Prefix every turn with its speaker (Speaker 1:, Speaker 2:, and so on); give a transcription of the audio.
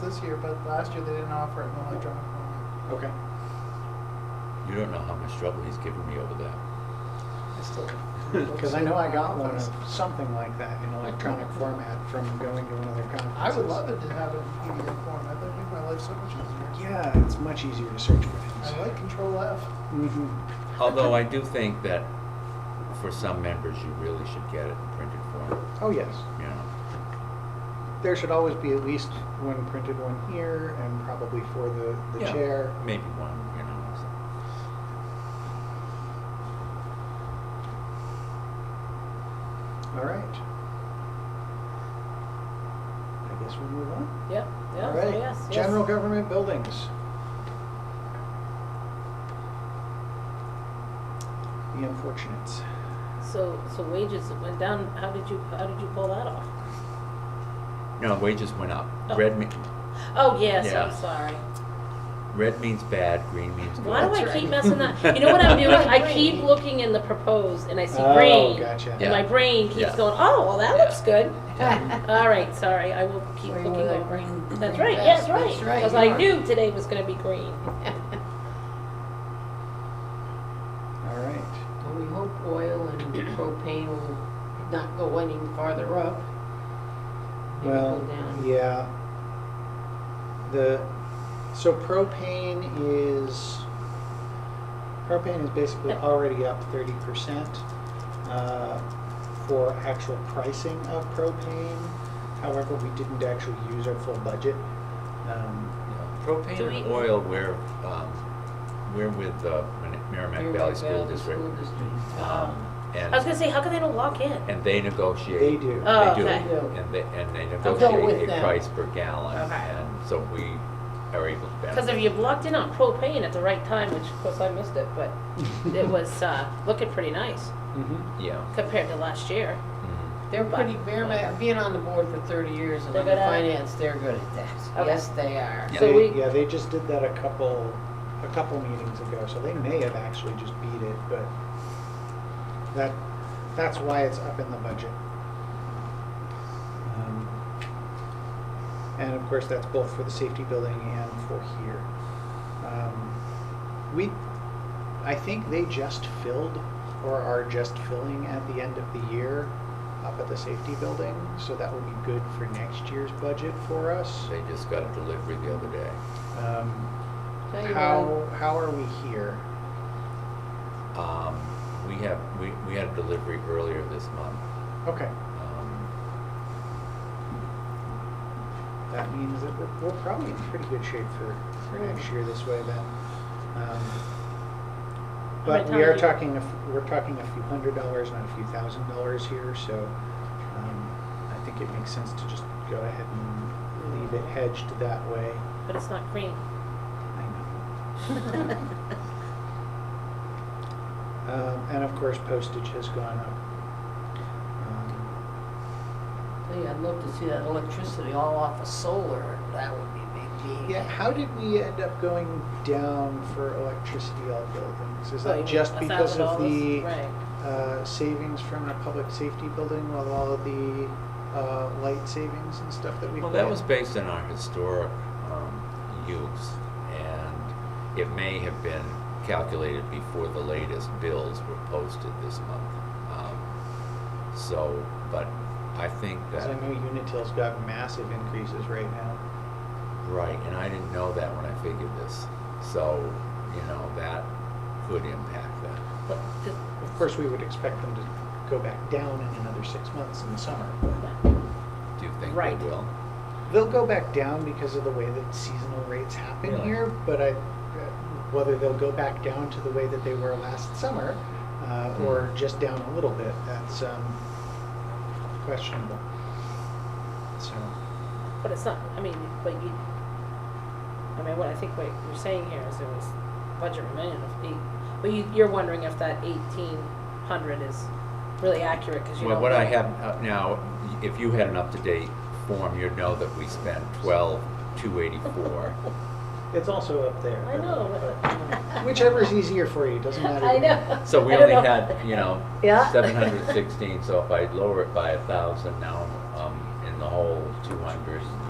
Speaker 1: this year, but last year they didn't offer it in electronic format.
Speaker 2: Okay.
Speaker 3: You don't know how much trouble he's given me over that.
Speaker 2: I still, because I know I got one of something like that in electronic format from going to one of their conferences.
Speaker 1: I would love it to have it in PDF form. I think it'd make my life so much easier.
Speaker 2: Yeah, it's much easier to search for things.
Speaker 1: I like Control F.
Speaker 2: Mhm.
Speaker 3: Although I do think that for some members, you really should get it in printed form,
Speaker 2: Oh, yes.
Speaker 3: you know.
Speaker 2: There should always be at least one printed one here and probably for the, the
Speaker 3: Yeah,
Speaker 2: chair.
Speaker 3: Maybe one, you know. so.
Speaker 2: All right. I guess we'll move on.
Speaker 4: Yep,
Speaker 2: All
Speaker 4: yeah, oh,
Speaker 2: right.
Speaker 4: yes, yes.
Speaker 2: General government buildings. The unfortunates.
Speaker 4: So, so wages went down, how did you, how did you pull that off?
Speaker 3: No, wages went up.
Speaker 4: Oh.
Speaker 3: Red me,
Speaker 4: Oh, yes,
Speaker 3: Yeah.
Speaker 4: I'm sorry.
Speaker 3: red means bad, green means good.
Speaker 4: Why do
Speaker 1: That's
Speaker 4: I
Speaker 1: right.
Speaker 4: keep messing up? You know what I'm doing? I keep
Speaker 1: Green.
Speaker 4: looking in the proposed and I see
Speaker 2: Oh,
Speaker 4: green.
Speaker 2: gotcha.
Speaker 4: And
Speaker 3: Yeah.
Speaker 4: my brain keeps
Speaker 3: Yeah.
Speaker 4: going, oh, well, that
Speaker 3: Yeah.
Speaker 4: looks good.
Speaker 3: Yeah.
Speaker 4: All right, sorry, I will keep
Speaker 5: Where you
Speaker 4: looking
Speaker 5: were like
Speaker 4: over.
Speaker 5: green-
Speaker 4: That's
Speaker 5: green
Speaker 4: right, yes,
Speaker 5: grass,
Speaker 4: right,
Speaker 5: that's right,
Speaker 4: because
Speaker 5: you
Speaker 4: I
Speaker 5: are.
Speaker 4: knew today was gonna be green.
Speaker 2: All right.
Speaker 5: Well, we hope oil and propane will not go any farther up. Maybe
Speaker 2: Well,
Speaker 5: go down.
Speaker 2: yeah. The, so propane is, propane is basically already up thirty percent uh, for actual pricing of propane. However, we didn't actually use our full budget. Um,
Speaker 3: Yeah. Propane
Speaker 4: Do
Speaker 3: and
Speaker 4: we-
Speaker 3: oil, we're, um, we're with uh, Merrimack Merrimack Valley School District.
Speaker 5: School District.
Speaker 3: Um,
Speaker 4: I was gonna
Speaker 3: And,
Speaker 4: say, how can they don't lock in?
Speaker 3: and they negotiate.
Speaker 2: They do.
Speaker 4: Oh,
Speaker 3: They do,
Speaker 4: okay.
Speaker 5: Yeah.
Speaker 3: and they, and they
Speaker 5: with
Speaker 3: negotiate a
Speaker 5: them.
Speaker 3: price per gallon,
Speaker 4: Okay.
Speaker 3: and so we are able to benefit.
Speaker 4: Because if you blocked in on propane at the right time, which of course I missed it, but it was, uh, looking pretty nice
Speaker 2: Mhm.
Speaker 3: Yeah.
Speaker 4: compared to last year.
Speaker 3: Mhm.
Speaker 5: They're pretty, Merrimack, being on the board for thirty years and
Speaker 4: They're
Speaker 5: on the
Speaker 4: good at it?
Speaker 5: finance, they're good at that.
Speaker 4: Okay.
Speaker 5: Yes, they are.
Speaker 3: Yeah.
Speaker 4: So
Speaker 2: They-
Speaker 4: we-
Speaker 2: Yeah, they just did that a couple, a couple meetings ago, so they may have actually just beat it, but that, that's why it's up in the budget. Um, And of course, that's both for the safety building and for here. Um, We, I think they just filled or are just filling at the end of the year up at the safety building, so that will be good for next year's budget for us.
Speaker 3: They just got a delivery the other day.
Speaker 2: Um,
Speaker 5: Tell you
Speaker 2: how, how are we here?
Speaker 3: Um, we have, we, we had a delivery earlier this month.
Speaker 2: Okay,
Speaker 3: Um,
Speaker 2: that means that we're, we're probably in pretty good shape for, for next year this way then. Um, But
Speaker 4: many
Speaker 2: we are
Speaker 4: times you-
Speaker 2: talking, a f- we're talking a few hundred dollars, not a few thousand dollars here, so um, I think it makes sense to just go ahead and leave it hedged that way.
Speaker 4: But it's not green.
Speaker 2: I know. Um, And of course postage has gone up. Um,
Speaker 5: what, tell you, I'd love to see that electricity all off of solar. That would be a big deal.
Speaker 2: Yeah, how did we end up going down for electricity all buildings? Is
Speaker 4: Like
Speaker 2: that just
Speaker 4: a
Speaker 2: because
Speaker 4: thousand
Speaker 2: of
Speaker 4: dollars?
Speaker 2: the
Speaker 4: Right.
Speaker 2: uh, savings from the public safety building with all of the uh, light savings and stuff that we?
Speaker 3: well, that was based on our historic, um, use, and it may have been calculated before the latest bills were posted this month. Um, So, but I think that.
Speaker 2: Because I know Unitil's got massive increases right now.
Speaker 3: Right, and I didn't know that when I figured this. So, you know, that could impact that.
Speaker 4: But the-
Speaker 2: Of course, we would expect them to go back down in another six months in the summer. but
Speaker 3: Do you think
Speaker 4: Right.
Speaker 3: they will?
Speaker 2: They'll go back down because of the way that seasonal rates happen
Speaker 3: Really?
Speaker 2: here, but I, whether they'll go back down to the way that they were last summer, uh, or just down a little bit, that's, um, questionable. So,
Speaker 4: But it's not, I mean, but you, I mean, what I think what you're saying here is there was budget remaining of eight, but you, you're wondering if that eighteen hundred is really accurate, cause you
Speaker 3: Well,
Speaker 4: don't
Speaker 3: what I
Speaker 4: know.
Speaker 3: have up now, if you had an up-to-date form, you'd know that we spent twelve, two eighty-four.
Speaker 2: it's also up there.
Speaker 4: I know. but-
Speaker 2: Whichever's easier for you, doesn't matter. to
Speaker 4: I
Speaker 2: me.
Speaker 4: know.
Speaker 3: So we
Speaker 4: I don't
Speaker 3: only
Speaker 4: know.
Speaker 3: had, you know,
Speaker 4: Yeah.
Speaker 3: seven hundred sixteen, so if I lower it by a thousand now, um, in the whole two hundred